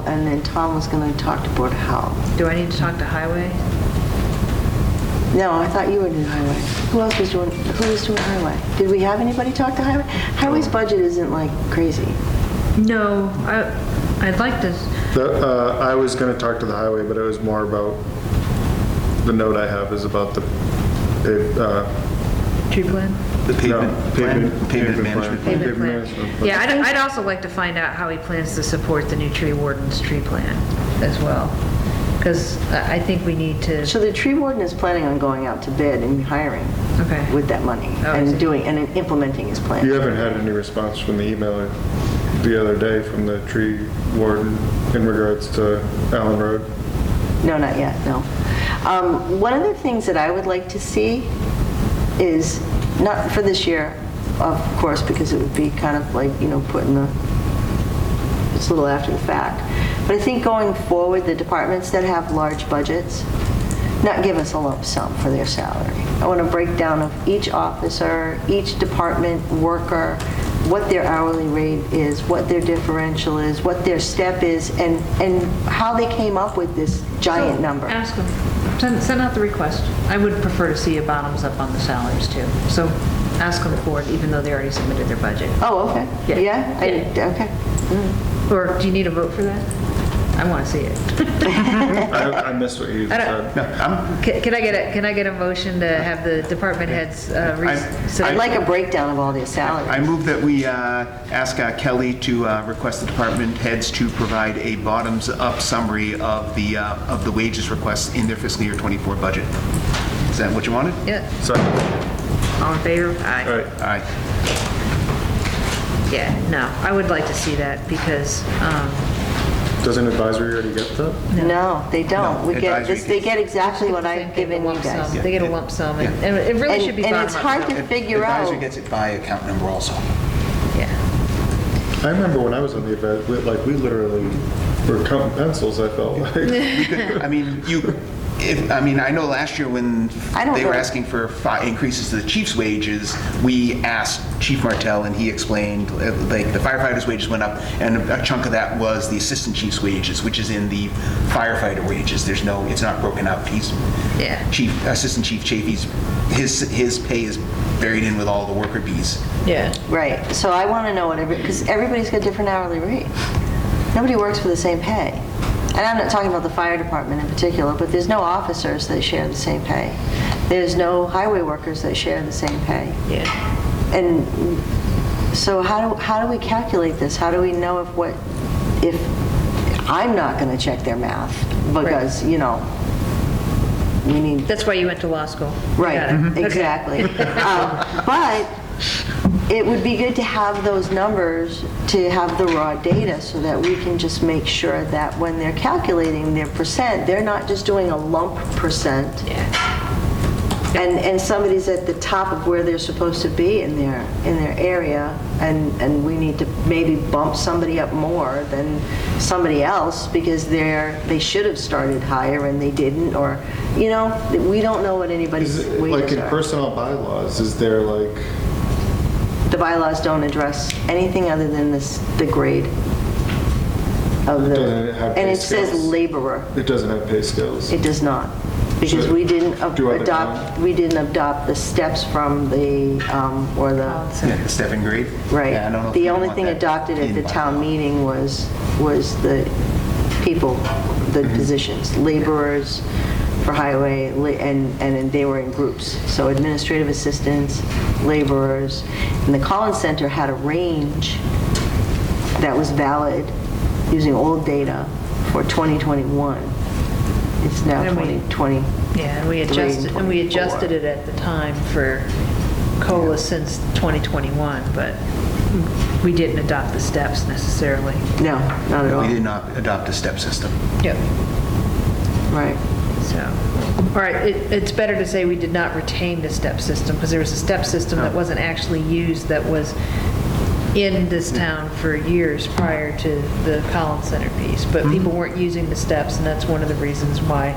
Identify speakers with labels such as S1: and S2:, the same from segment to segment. S1: and then Tom was going to talk to Board of Health.
S2: Do I need to talk to Highway?
S1: No, I thought you were doing highway. Who else was doing, who was doing highway? Did we have anybody talk to highway? Highway's budget isn't like crazy.
S2: No, I, I'd like to,
S3: The, uh, I was gonna talk to the highway, but it was more about, the note I have is about the, it, uh,
S2: tree plan?
S4: The pavement,
S3: no,
S4: pavement pavement
S3: plan.
S4: management.
S2: Payment
S3: management
S2: plan.
S3: plan.
S2: Yeah, I'd, I'd also like to find out how he plans to support the new tree warden's tree plan as well. Because I I think we need to,
S1: So the tree warden is planning on going out to bid and hiring
S2: Okay.
S1: with that money
S2: Oh, I see.
S1: and doing, and implementing his
S3: You
S1: plan.
S3: haven't had any response from the email the other day from the tree warden in regards to Allen Road?
S1: No, not yet, no. Um, One of the things that I would like to see is, not for this year, of course, because it would be kind of like, you know, putting the it's a little after the fact. But I think going forward, the departments that have large budgets, not give us a lump sum for their salary. I want a breakdown of each officer, each department worker, what their hourly rate is, what their differential is, what their step is, and, and how they came up with this giant number.
S2: ask him, send, send out the request. I would prefer to see a bottoms up on the salaries too. So ask him for it, even though they already submitted their budget.
S1: Oh, okay.
S2: Yeah.
S1: Yeah? I- Okay.
S2: Or do you need a vote for that? I want to see it.
S3: I, I missed what you
S2: I
S3: said.
S2: don't- Can can I get a, can I get a motion to have the department heads? uh, re-
S4: I-
S2: so-
S1: I'd like a breakdown of all their
S4: I
S1: salaries.
S4: move that we uh, ask uh, Kelly to uh, request the department heads to provide a bottoms-up summary of the, uh, of the wages requests in their fiscal year '24 budget. Is that what you wanted?
S2: Yeah,
S3: Second,
S2: all in favor?
S3: all
S2: Aye.
S3: right.
S4: All right.
S2: Yeah, no, I would like to see that because, um,
S3: Doesn't advisory already get that?
S1: No, they don't.
S4: No,
S1: We get,
S4: advisory
S1: this. they
S4: gets-
S1: get exactly what
S2: Same
S1: I've
S2: thing,
S1: given
S2: a
S1: you
S2: lump
S1: guys.
S2: sum. They get a lump sum, and and it really
S1: And-
S2: should be
S1: and
S2: bottom
S1: it's hard to- Figure
S4: Advisor
S1: out.
S4: gets it by account number also.
S2: Yeah,
S3: I remember when I was on the event, we- like, we literally were counting pencils, I felt like.
S4: We could- I mean, you, if, I mean, I know last year when
S1: I don't
S4: they were
S1: know.
S4: asking for fi- increases to the chief's wages, we asked Chief Martell, and he explained, uh, like, the firefighters' wages went up, and a chunk of that was the assistant chief's wages, which is in the firefighter wages. There's no, it's not broken up. He's,
S2: Yeah.
S4: Chief, Assistant Chief Chafee's, his, his pay is buried in with all the worker bees.
S2: yeah.
S1: Right, so I want to know what every, because everybody's got different hourly rate. Nobody works for the same pay. And I'm not talking about the fire department in particular, but there's no officers that share the same pay. There's no highway workers that share the same pay.
S2: Yeah.
S1: And so how do, how do we calculate this? How do we know if what, if, I'm not going to check their math because, you know, we need
S2: That's why you went to law school. You got it.
S1: Right, mm-hmm. mhm.
S2: Okay.
S1: exactly. Um, But it would be good to have those numbers, to have the raw data, so that we can just make sure that when they're calculating their percent, they're not just doing a lump percent,
S2: Yeah.
S1: and, and somebody's at the top of where they're supposed to be in their, in their area, and, and we need to maybe bump somebody up more than somebody else, because they're, they should have started higher and they didn't, or, you know, we don't know what anybody's
S3: Is it- Like
S1: wages
S3: in
S1: are.
S3: personnel bylaws, is there like,
S1: The bylaws don't address anything other than this, the grade of
S3: Doesn't
S1: the,
S3: it have
S1: and
S3: pay
S1: it says
S3: scales?
S1: laborer.
S3: it doesn't have pay scales?
S1: It does not, because
S3: So,
S1: we didn't ab-
S3: do other
S1: adopt, we didn't adopt the steps from the, um, or the,
S2: So-
S4: The step and grade? Yeah, I don't know
S1: right.
S4: if
S1: The
S4: we
S1: only
S4: want
S1: thing
S4: that
S1: adopted at
S4: in
S1: the
S4: by
S1: town
S4: law.
S1: meeting was, was the people, the
S4: Mm-hmm.
S1: positions, laborers for highway, la- and, and then they were in groups. So administrative assistants, laborers, and the Collins Center had a range that was valid using old data for 2021. It's now
S2: And we-
S1: 2020.
S2: Yeah, and we adjusted, and we adjusted it at the time for COLA since 2021, but we didn't adopt the steps necessarily.
S1: No, not at
S4: We
S1: all.
S4: did not adopt a step system.
S2: Yep.
S1: Right.
S2: So, all right, it, it's better to say we did not retain the step system, because there was a step system that wasn't actually used, that was in this town for years prior to the Collins Center piece, but people weren't using the steps, and that's one of the reasons why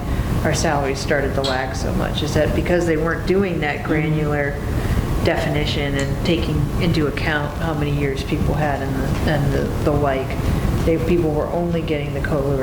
S2: our salaries started to lag so much, is that because they weren't doing that granular definition and taking into account how many years people had and the, and the- the like, they, people were only getting the COLA